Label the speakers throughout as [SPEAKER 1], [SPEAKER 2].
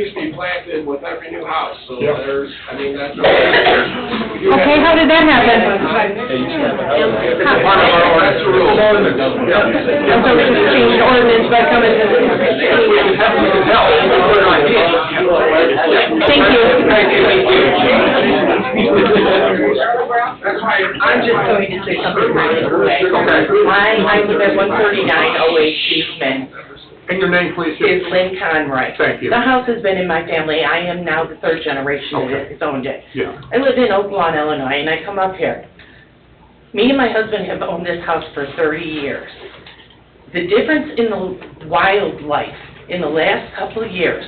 [SPEAKER 1] replanted with every new house, so
[SPEAKER 2] Yeah.
[SPEAKER 1] there's, I mean, that's.
[SPEAKER 3] Okay, how did that happen?
[SPEAKER 1] That's the rule.
[SPEAKER 3] And so we just changed ordinance by coming to this.
[SPEAKER 1] If we can help, we can help. We're not here.
[SPEAKER 3] Thank you.
[SPEAKER 1] Thank you, thank you. That's why
[SPEAKER 4] I'm just going to say something really quick.
[SPEAKER 1] Okay.
[SPEAKER 4] I, I live at one thirty-nine oh eight Eastman,
[SPEAKER 1] And your name, please?
[SPEAKER 4] is Lynn Conroy.
[SPEAKER 1] Thank you.
[SPEAKER 4] The house has been in my family, I am now the third generation that has owned it.
[SPEAKER 1] Yeah.
[SPEAKER 4] I live in Oak Lawn, Illinois, and I come up here. Me and my husband have owned this house for thirty years. The difference in the wildlife in the last couple of years,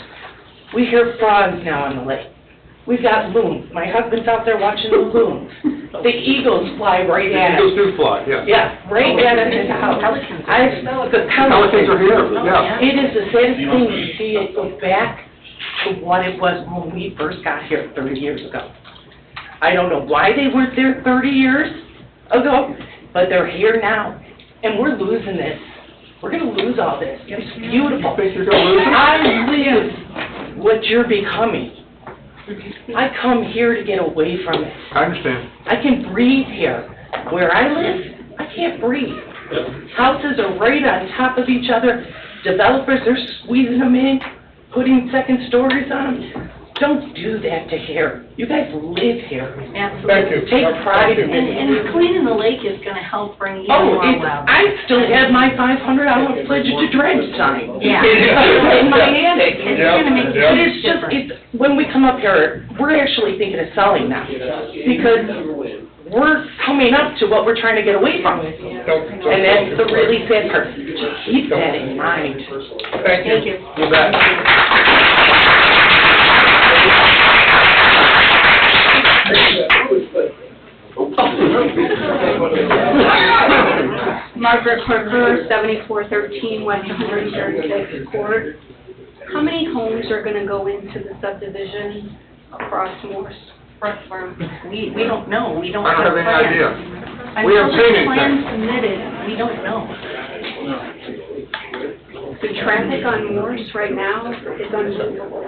[SPEAKER 4] we hear frogs now on the lake. We've got loons, my husband's out there watching the loons. The eagles fly right at us.
[SPEAKER 1] Those do fly, yeah.
[SPEAKER 4] Yeah, right down in his house. I, the
[SPEAKER 1] Pelicans are
[SPEAKER 4] pelicans,
[SPEAKER 1] here, yeah.
[SPEAKER 4] it is the saddest thing to see it go back to what it was when we first got here thirty years ago. I don't know why they weren't there thirty years ago, but they're here now, and we're losing this. We're gonna lose all this. It's beautiful.
[SPEAKER 1] Think you're gonna lose it?
[SPEAKER 4] I live what you're becoming. I come here to get away from it.
[SPEAKER 1] I understand.
[SPEAKER 4] I can breathe here. Where I live, I can't breathe. Houses are right on top of each other. Developers are squeezing them in, putting second stories on them. Don't do that to here. You guys live here.
[SPEAKER 2] Thank you.
[SPEAKER 4] Take pride in
[SPEAKER 2] Thank you.
[SPEAKER 4] it.
[SPEAKER 5] And cleaning the lake is gonna help bring even
[SPEAKER 4] Oh,
[SPEAKER 5] more
[SPEAKER 4] it's,
[SPEAKER 5] wildlife.
[SPEAKER 4] I still have my five hundred dollar pledge to dredge sign.
[SPEAKER 5] Yeah.
[SPEAKER 4] In my attic.
[SPEAKER 5] It's gonna make
[SPEAKER 2] Yeah,
[SPEAKER 4] But
[SPEAKER 5] a
[SPEAKER 4] it's
[SPEAKER 5] huge
[SPEAKER 4] just,
[SPEAKER 5] difference.
[SPEAKER 4] it's, when we come up here, we're actually thinking of selling now, because we're coming up to what we're trying to get away from. And that's the really sad part, just keep that in mind.
[SPEAKER 2] Thank
[SPEAKER 5] Thank you.
[SPEAKER 2] you. You bet.
[SPEAKER 5] Margaret Parker, seventy-four thirteen West one hundred thirty-sixth Court. How many homes are gonna go into the subdivision across Morse, Front Farm?
[SPEAKER 6] We, we don't know, we don't
[SPEAKER 1] I don't
[SPEAKER 6] have
[SPEAKER 1] have any
[SPEAKER 6] plans.
[SPEAKER 1] idea.
[SPEAKER 5] Until
[SPEAKER 1] We haven't seen
[SPEAKER 5] the
[SPEAKER 1] anything.
[SPEAKER 5] Plan submitted.
[SPEAKER 6] We don't know.
[SPEAKER 5] The traffic on Morse right now is unbelievable.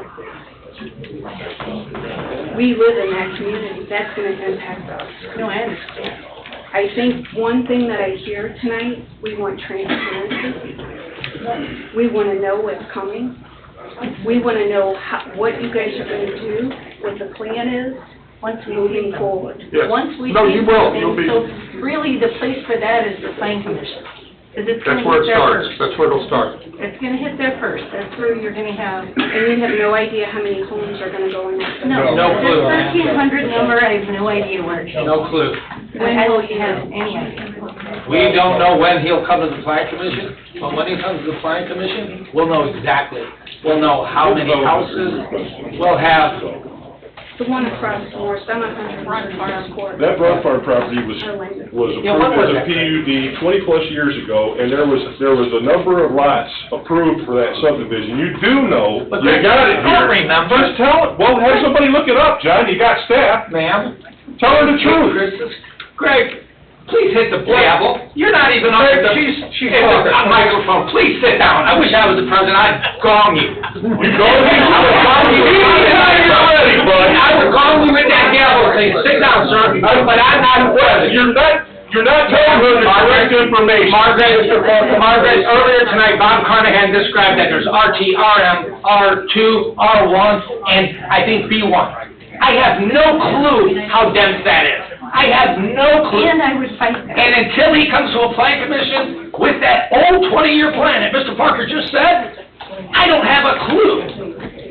[SPEAKER 5] We live in that community, that's gonna impact us.
[SPEAKER 6] No, I understand.
[SPEAKER 5] I think one thing that I hear tonight, we want transparency. We wanna know what's coming. We wanna know how, what you guys are gonna do, what the plan is,
[SPEAKER 6] Once we
[SPEAKER 5] moving forward.
[SPEAKER 1] Yes.
[SPEAKER 6] Once we.
[SPEAKER 1] No,
[SPEAKER 6] see
[SPEAKER 1] you will,
[SPEAKER 6] something,
[SPEAKER 1] you'll be,
[SPEAKER 6] So really, the place for that is the planning commission. 'cause it's gonna
[SPEAKER 1] that's where
[SPEAKER 6] hit
[SPEAKER 1] it
[SPEAKER 6] there
[SPEAKER 1] starts,
[SPEAKER 6] first.
[SPEAKER 1] that's where it'll start.
[SPEAKER 6] It's gonna hit there first, that's where you're gonna have,
[SPEAKER 5] And you have no idea how many homes are gonna go in that.
[SPEAKER 6] no.
[SPEAKER 2] No
[SPEAKER 6] This
[SPEAKER 2] clue.
[SPEAKER 6] thirteen hundred number, I have no idea where it is.
[SPEAKER 7] No clue.
[SPEAKER 5] When
[SPEAKER 6] I
[SPEAKER 5] will
[SPEAKER 6] don't
[SPEAKER 5] you
[SPEAKER 6] have
[SPEAKER 5] know?
[SPEAKER 6] any idea.
[SPEAKER 7] We don't know when he'll come to the plan commission, but when he comes to the plan commission, we'll know exactly. We'll know how many houses, we'll have,
[SPEAKER 5] The one across Morse, I'm on Hundred Farm Court.
[SPEAKER 2] That Broad Farm property was, was
[SPEAKER 7] Yeah, what was
[SPEAKER 2] approved as a
[SPEAKER 7] that?
[SPEAKER 2] PUD twenty-plus years ago, and there was, there was a number of lots approved for that subdivision. You do know,
[SPEAKER 7] But
[SPEAKER 2] you
[SPEAKER 7] they-
[SPEAKER 2] got
[SPEAKER 7] I
[SPEAKER 2] it
[SPEAKER 7] don't
[SPEAKER 2] here.
[SPEAKER 7] remember.
[SPEAKER 2] Just tell it, well, have somebody look it up, John, you got staff,
[SPEAKER 7] ma'am.
[SPEAKER 2] tell her the truth.
[SPEAKER 7] Greg, please hit the gavel. You're not even on the, hit the microphone. Please sit down. I wish I was the president. I'd gong you.
[SPEAKER 2] You go ahead.
[SPEAKER 7] I would gong you.
[SPEAKER 2] You need to hire somebody, bud.
[SPEAKER 7] I would gong you with that gavel. Say, sit down, sir. But I'm not the president.
[SPEAKER 2] You're not, you're not telling her the correct information.
[SPEAKER 7] Margaret, Margaret, earlier tonight, Bob Carnahan described that there's RT, RM, R2, R1, and I think B1. I have no clue how dense that is. I have no clue.
[SPEAKER 6] And I would fight that.
[SPEAKER 7] And until he comes to a plan commission with that old twenty-year plan that Mr. Parker just said, I don't have a clue.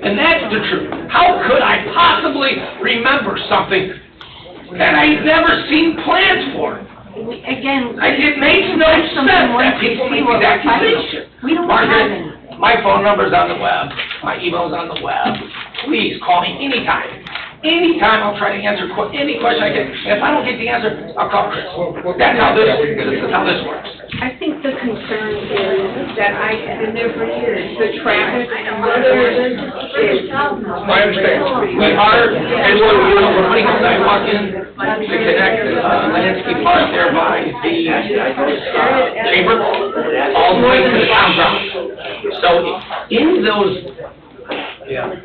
[SPEAKER 7] And that's the truth. How could I possibly remember something that I've never seen plans for?
[SPEAKER 6] We- Again.
[SPEAKER 7] Like, it makes no
[SPEAKER 6] that's
[SPEAKER 7] sense
[SPEAKER 6] something
[SPEAKER 7] that
[SPEAKER 6] once we
[SPEAKER 7] people
[SPEAKER 6] see
[SPEAKER 7] make these
[SPEAKER 6] what we're fighting.
[SPEAKER 7] accusations.
[SPEAKER 6] We don't have any.
[SPEAKER 7] Margaret, my phone number's on the web, my email's on the web. Please call me anytime. Anytime I'll try to answer que- any question I get. If I don't get the answer, I'll call Chris. That's how this, this is how this works.
[SPEAKER 5] I think the concern is that I, and there for years, the traffic, whether it's
[SPEAKER 2] I understand.
[SPEAKER 7] We are, and we're, we're putting a sidewalk in to connect the uh, landscape park there by the uh, chamber, all the way to the town grounds. So in those